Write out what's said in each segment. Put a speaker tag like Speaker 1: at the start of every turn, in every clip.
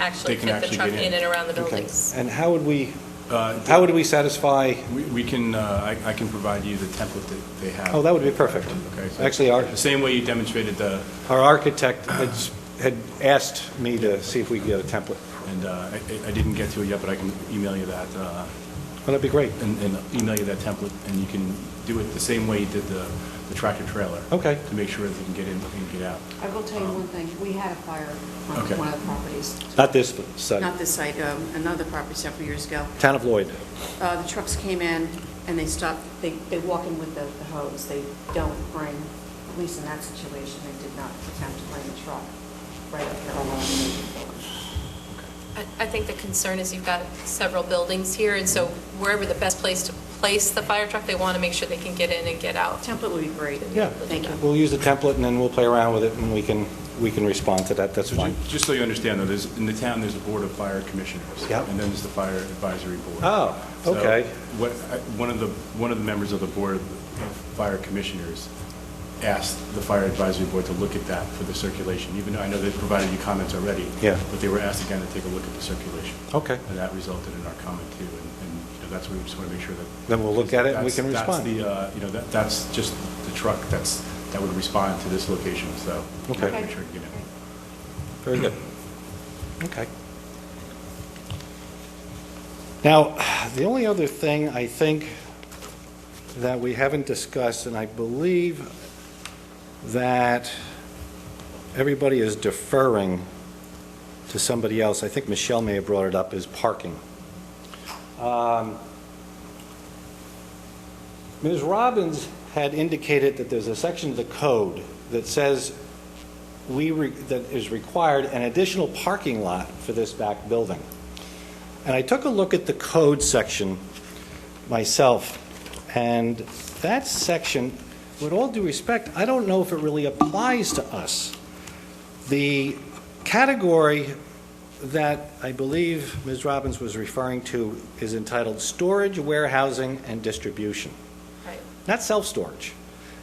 Speaker 1: actually
Speaker 2: They can
Speaker 1: fit the
Speaker 2: actually
Speaker 1: truck
Speaker 2: get
Speaker 1: in
Speaker 2: in.
Speaker 1: and around the
Speaker 3: Okay.
Speaker 1: buildings.
Speaker 3: And how would we,
Speaker 2: Uh,
Speaker 3: how would we satisfy,
Speaker 2: We we can, uh, I I can provide you the template that they have.
Speaker 3: oh, that would be perfect.
Speaker 2: Okay, so-
Speaker 3: Actually, our,
Speaker 2: The same way you demonstrated the,
Speaker 3: our architect had s- had asked me to see if we could get a template.
Speaker 2: and uh, I I- I didn't get to it yet, but I can email you that, uh,
Speaker 3: Well, that'd be great.
Speaker 2: and and email you that template, and you can do it the same way you did the the tractor trailer.
Speaker 3: Okay.
Speaker 2: To make sure that they can get in and get out.
Speaker 4: I will tell you one thing, we had a fire on
Speaker 2: Okay.
Speaker 4: one of the properties,
Speaker 3: Not this site,
Speaker 4: not this site, um, another property several years ago.
Speaker 3: Town of Lloyd.
Speaker 4: Uh, The trucks came in and they stopped, they, they walk in with the the hose, they don't bring, at least in that situation, they did not attempt to bring the truck right up here along the main building.
Speaker 1: I, I think the concern is you've got several buildings here, and so wherever the best place to place the fire truck, they want to make sure they can get in and get out.
Speaker 4: Template would be great.
Speaker 3: Yeah.
Speaker 4: Thank you.
Speaker 3: We'll use the template, and then we'll play around with it, and we can, we can respond to that, that's
Speaker 2: So
Speaker 3: fine.
Speaker 2: ju- Just so you understand, though, there's, in the town, there's a board of fire commissioners.
Speaker 3: Yep.
Speaker 2: And then there's the fire advisory board.
Speaker 3: Oh,
Speaker 2: So
Speaker 3: okay.
Speaker 2: what- I- One of the, one of the members of the board of fire commissioners asked the fire advisory board to look at that for the circulation, even though I know they've provided you comments already.
Speaker 3: Yeah.
Speaker 2: But they were asked again to take a look at the circulation.
Speaker 3: Okay.
Speaker 2: And that resulted in our comment too, and, and you know, that's where we just want to make sure that.
Speaker 3: Then we'll look at it and we
Speaker 2: That's-
Speaker 3: can
Speaker 2: That's
Speaker 3: respond.
Speaker 2: the, uh, you know, that, that's just the truck that's, that would respond to this location, so. we
Speaker 3: Okay.
Speaker 2: gotta Make sure to get in.
Speaker 3: Very good. Okay. Now, the only other thing I think that we haven't discussed, and I believe that everybody is deferring to somebody else, I think Michelle may have brought it up, is parking. Um, Ms. Robbins had indicated that there's a section of the code that says we, re- that is required an additional parking lot for this back building. And I took a look at the code section myself, and that section, with all due respect, I don't know if it really applies to us. The category that I believe Ms. Robbins was referring to is entitled storage, warehousing, and distribution
Speaker 1: Right.
Speaker 3: not self-storage.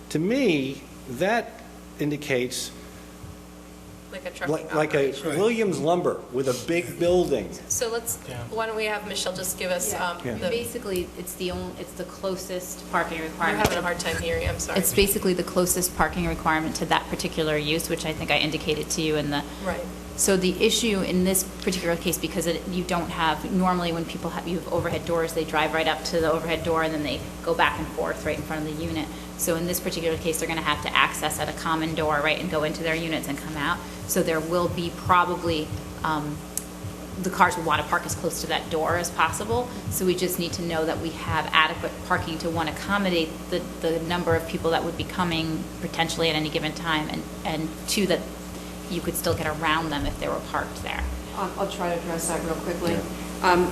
Speaker 3: To me, that indicates
Speaker 1: Like a trucking
Speaker 3: like like a
Speaker 1: operation.
Speaker 3: Williams lumber with a big building.
Speaker 1: So let's, why don't we have Michelle just give us, um,
Speaker 3: Yeah.
Speaker 1: the-
Speaker 5: Basically, it's the only, it's the closest parking
Speaker 1: we're
Speaker 5: requirement.
Speaker 1: having a hard time hearing, I'm sorry.
Speaker 5: It's basically the closest parking requirement to that particular use, which I think I indicated to you in the.
Speaker 1: Right.
Speaker 5: So the issue in this particular case, because it, you don't have, normally when people have, you have overhead doors, they drive right up to the overhead door and then they go back and forth right in front of the unit. So in this particular case, they're gonna have to access at a common door, right, and go into their units and come out. So there will be probably, um, the cars will want to park as close to that door as possible, so we just need to know that we have adequate parking to, one, accommodate the, the number of people that would be coming potentially at any given time, and, and two, that you could still get around them if they were parked there.
Speaker 4: I'll Um, I'll try to address that real quickly. Um,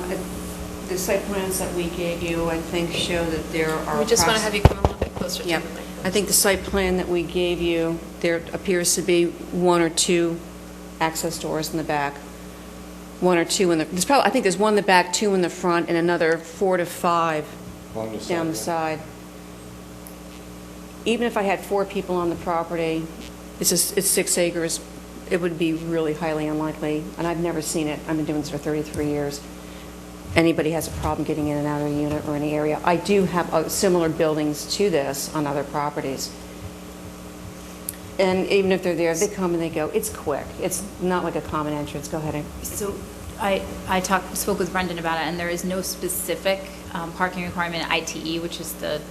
Speaker 4: The site plans that we gave you, I think, show that there are...
Speaker 1: We just want to
Speaker 4: approx-
Speaker 1: have you come a little bit closer to the
Speaker 4: Yeah,
Speaker 1: mic.
Speaker 4: I think the site plan that we gave you, there appears to be one or two access doors in the back, one or two in the, there's probably, I think there's one in the back, two in the front, and another four to five down the side. Even if I had four people on the property, it's just, it's six acres, it would be really highly unlikely, and I've never seen it, I've been doing this for 33 years, anybody has a problem getting in and out of a unit or any area. I do have uh, similar buildings to this on other properties. And even if they're there, they come and they go, it's quick, it's not like a common entrance, go ahead and
Speaker 5: So I, I talked, spoke with Brendan about it, and there is no specific um, parking requirement, ITE, E, which is the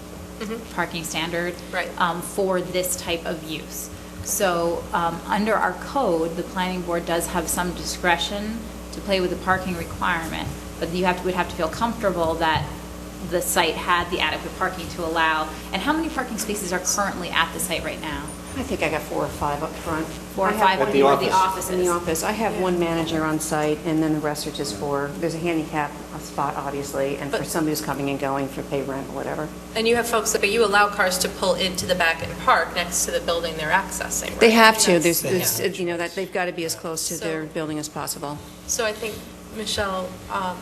Speaker 5: parking standard.
Speaker 1: Right.
Speaker 5: um, For this type of use. So, um, under our code, the planning board does have some discretion to play with the parking requirement, but you have, to- would have to feel comfortable that the site had the adequate parking to allow. And how many parking spaces are currently at the site right now?
Speaker 4: I think I got four or five up front.
Speaker 5: Four or
Speaker 4: I have
Speaker 5: five
Speaker 4: one-
Speaker 5: At the
Speaker 3: where the
Speaker 5: office. office
Speaker 4: In the
Speaker 5: is.
Speaker 4: office. I have one manager on site, and then the rest are just for, there's a handicap spot, obviously, and for
Speaker 1: But-
Speaker 4: somebody who's coming and going for pay rent or whatever.
Speaker 1: And you have folks, that- but you allow cars to pull into the back and park next to the building they're accessing, right?
Speaker 4: They have to,
Speaker 1: That's-
Speaker 4: there's,
Speaker 1: yeah.
Speaker 4: there's, you know, that, they've got to be as close to
Speaker 1: So-
Speaker 4: their building as possible.
Speaker 1: So I think, Michelle, um,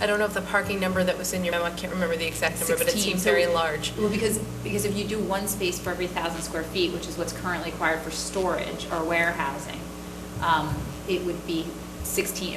Speaker 1: I don't know if the parking number that was in your memo, I can't remember the exact number, but it
Speaker 5: 16,
Speaker 1: seemed
Speaker 5: so-
Speaker 1: very large.
Speaker 5: Well, because, because if you do one space for every thousand square feet, which is what's currently required for storage or warehousing, um, it would be 16,